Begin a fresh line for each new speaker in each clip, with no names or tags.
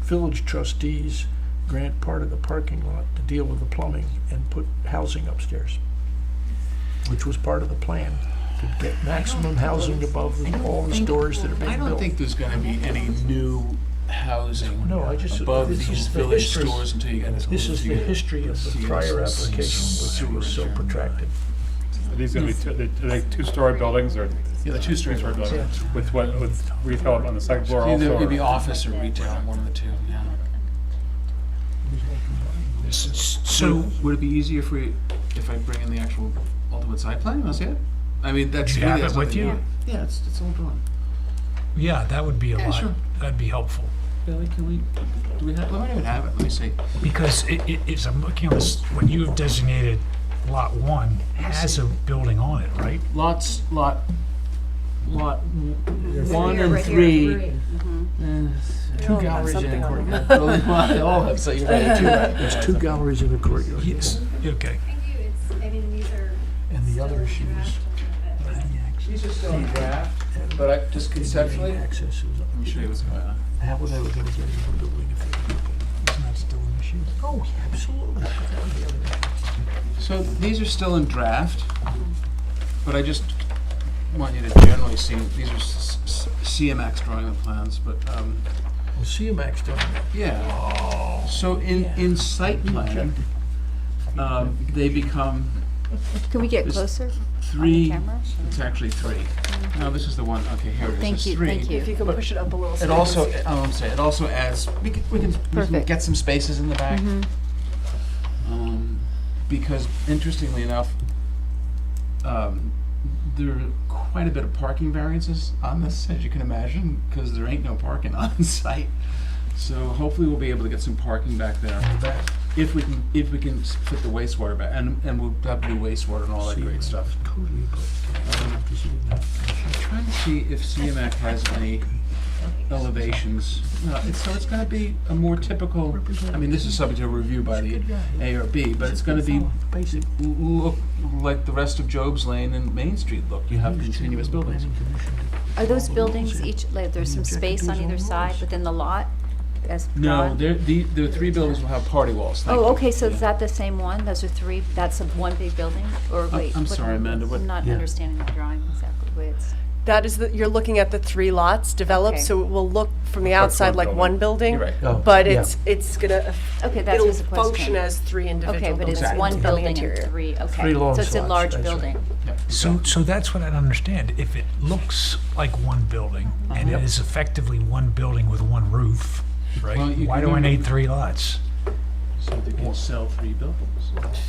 village trustees grant part of the parking lot to deal with the plumbing and put housing upstairs, which was part of the plan, to get maximum housing above
I don't
all the
think-
stores that are being
I
built.
don't think there's gonna be any new housing
No, I just-
above
this
these
is the
village
history.
stores until you get.
This is the history of the prior application, which was so protracted.
Are these gonna be, two- are they two-story buildings or
Yeah, the two-story
three-story
buildings.
buildings? With what, with retail on the second floor
Either
also?
it could be
or-
office or retail, one of the two, yeah.
So,
Would it be easier if we, if I bring in the actual ultimate site plan, that's it? I mean, that's.
You have it with you?
Yeah, it's, it's all drawn.
yeah, that would be a
Yeah,
lot,
sure.
that'd be helpful.
Billy, can we, do we have, we might even have it, let me see.
Because it, it, it's, I'm looking on this, when you have designated lot one has a building on it, right?
Lots, lot, lot one
here,
and
right here,
three. Eh, Two
all have
galleries in
something
a
on
courtyard. Building one, They all have, so you're right, two,
There's two galleries in the courtyard.
Yes, okay.
Thank you, it's, I mean, these are.
And the
still
other issue is-
draft a little bit.
These are still in draft, but I, just conceptually. Let
Access is,
me show you what's going on.
how were they gonna get into the building if they didn't?
Isn't that still an issue?
Oh, yeah, absolutely.
So these are still in draft, but I just want you to generally see, these are s- s- CMX drawing of plans, but, um,
Well, CMAX done that.
yeah. So in, in site plan, um, they become
Can we get
Just
closer on the
three,
camera?
it's actually three. No, this is the one, okay, here it is,
Thank
it's
you,
three.
thank you.
If you can push it up a little. so
It
they can
also,
see it.
I don't say, it also adds, we can, we can- we can
Perfect.
get some spaces in the back.
Mhm.
Um, because interestingly enough, um, there are quite a bit of parking variances on this, as you can imagine, because there ain't no parking on site. So hopefully we'll be able to get some parking back there. If we can, if we can s- fit the wastewater back, and, and we'll have new wastewater and all that great stuff.
Totally, but
Um,
after seeing that,
I'm trying to see if CMAC has any elevations. No, it's, so it's gonna be a more typical, I mean, this is subject to review by the A or B, but it's gonna be
basic
l- look like the rest of Job's Lane and Main Street look. You have continuous buildings.
Are those buildings each, like, there's some space on either side within the lot as
No,
drawn?
there, the, the three buildings will have party walls. Thank
Oh,
you.
okay, so
Yeah.
is that the same one? Those are three, that's a one big building, or wait?
I'm
what-
sorry, Amanda, what-
I'm not
Yeah.
understanding the drawing exactly, the way it's,
That is, the- you're looking at the three lots developed,
Okay.
so it will look from the
That's one
outside like
building.
one building.
You're right.
Oh,
But
yeah.
it's, it's gonna,
okay, that
it'll
was the question.
function as three
Okay,
individual
but
buildings
it's one
on the
building
interior.
and three, okay.
Three long
So it's a
slots,
large
that's right.
building.
Yeah.
So, so that's what I don't understand. If it looks like one building
Uh-huh.
and it is effectively one building with one roof,
Well,
right?
you
Why
can
do I
do-
need three lots?
So they can sell three buildings.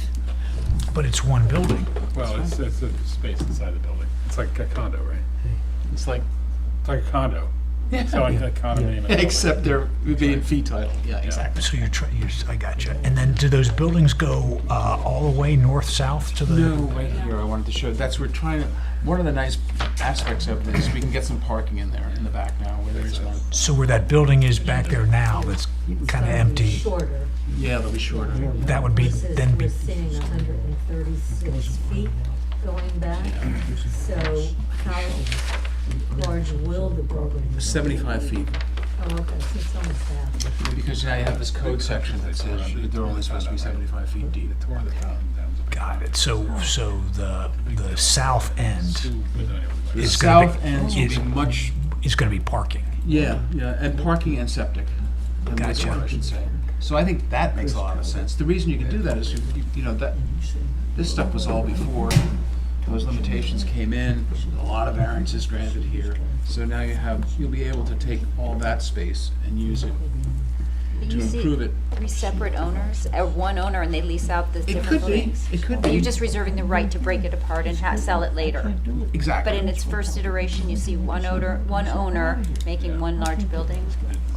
But it's one building.
Well, it's, it's a space inside the building. It's like a condo, right?
It's like,
It's like a condo. So like a condominium.
except they're being fee title. Yeah, exactly.
So you're trying, you're, s- I gotcha. And then do those buildings go, uh, all the way north-south to the?
No, right here, I wanted to show, that's, we're trying to, one of the nice aspects of this, we can get some parking in there, in the back now, where there is one.
So where that building is back there now, that's kind of empty,
Shorter,
Yeah, they'll be shorter.
that would be,
this is
then be,
rescinding 136 feet going back, so how large will the building be?
Seventy-five feet,
Oh, okay, so it's almost half.
because now you have this code section that says they're only supposed to be seventy-five feet deep.
got it. So, so the, the south end
The
It's gonna be-
south ends will be
it's-
much,
is gonna be parking.
yeah, yeah, and parking and septic. And wastewater,
Gotcha.
I should say. So I think that makes a lot of sense. The reason you can do that is, you, you- you know, that, this stuff was all before those limitations came in, a lot of variances granted here. So now you have, you'll be able to take all that space and use it to
You see
improve it.
Three separate owners, or one owner, and they lease out the
It
different
could be,
buildings?
it could
But
be,
you're just reserving the right to break it apart and ha- sell it later?
exactly.
But in its first iteration, you see one owner, one owner making one large building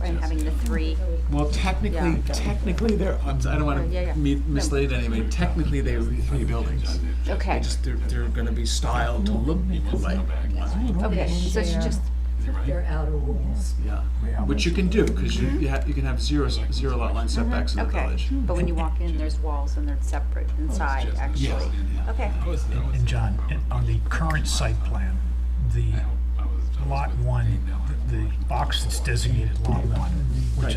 and having the three.
Well, technically,
Yeah.
technically, they're, I'm s- I don't want
Yeah, yeah.
to mislead anybody, technically, they would be three buildings.
Okay,
Just they're, they're gonna be styled to look like one,
okay, so it's just,
Their outer walls.
yeah. Which you can do, because you, you have, you can have zero, s- zero lot line setbacks in the
okay.
village.
But when you walk in, there's walls and they're separate inside, actually. Okay,
And and John, and on the current site plan, the lot one, the- the box that's designated lot one, which